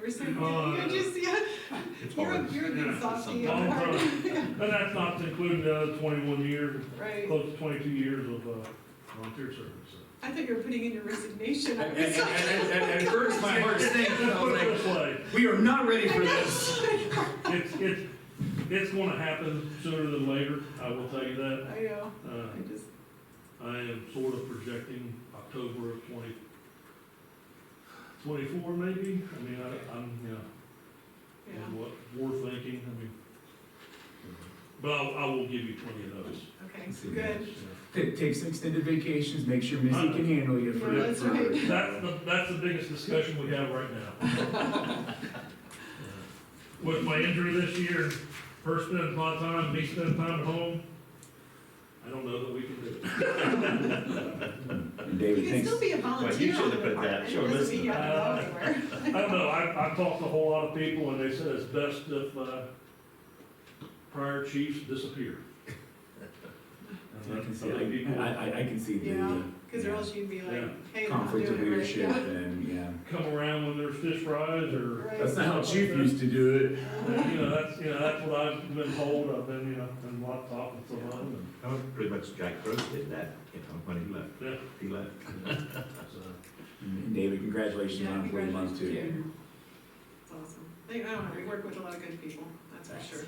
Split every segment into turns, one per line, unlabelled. were saying,
Oh,
you're just, yeah,
It's
you're a,
hard.
you're a
Yeah,
big
it's
softie.
something.
at heart.
And that's not including the other twenty-one years,
Right,
close to twenty-two years of, uh, volunteer service. so.
I thought you were putting in your resignation. I
And,
was
and,
like,
and, and, and first, my heart sank, and I
Put
was
it
like,
this way,
we are not ready for this.
it's, it's, it's gonna happen sooner than later, I will tell you that.
I know,
Uh,
I just,
I am sort of projecting October of twenty, twenty-four maybe, I mean, I, I'm, you know,
yeah,
and what we're thinking, I mean. But I, I will give you twenty of those.
okay, good.
yeah.
Take, take some extended vacations, make sure Missy can handle you for,
Yeah, that's
for,
right.
That's the, that's the biggest discussion we have right now. With my injury this year, her spending a lot of time, me spending time at home, I don't know that we can do it.
You
David
can
thinks,
still be a volunteer. on
should have
the
put that,
department.
show
It doesn't mean you have to go
listening.
anywhere.
I don't know, I, I've talked to a whole lot of people, and they said it's best if, uh, prior chiefs disappear.
I can see,
I think
it.
people
I, I, I can see the
Yeah,
uh,
cause or else you'd be like,
Yeah.
hey, I'm not
conflict of
doing it
leadership
right.
and, yeah.
come around when there's fish fries, or,
Right.
That's not how Chief used to do it.
you know, that's, you know, that's what I've been told, I've been, you know, been laptop and so on,
That was pretty much Jack Gross did that, you know, when he left,
and, yeah,
he left.
so.
And David, congratulations
Yeah,
on four months
congratulations to
too.
you. It's awesome. They, I don't know, we work with a lot of good people, that's for sure.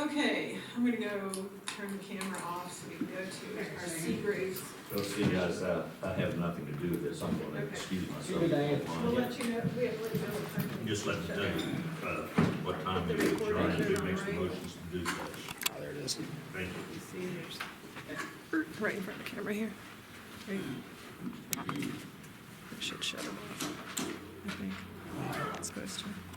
Okay, I'm gonna go turn the camera off so we can go to our Seagraves.
So see, guys, I, I uh, have nothing to do with this, I'm gonna
Okay.
excuse myself. Uh,
Good day.
We'll let you know, we have, let you know. what time.
Just let me know, uh, what time
The
it is,
recording
John, who
on,
makes the
right?
motions to do that. Oh, there it is. Thank you.
You see, there's, right in front of the camera here. Right. It should shut it off, I think. It's supposed to.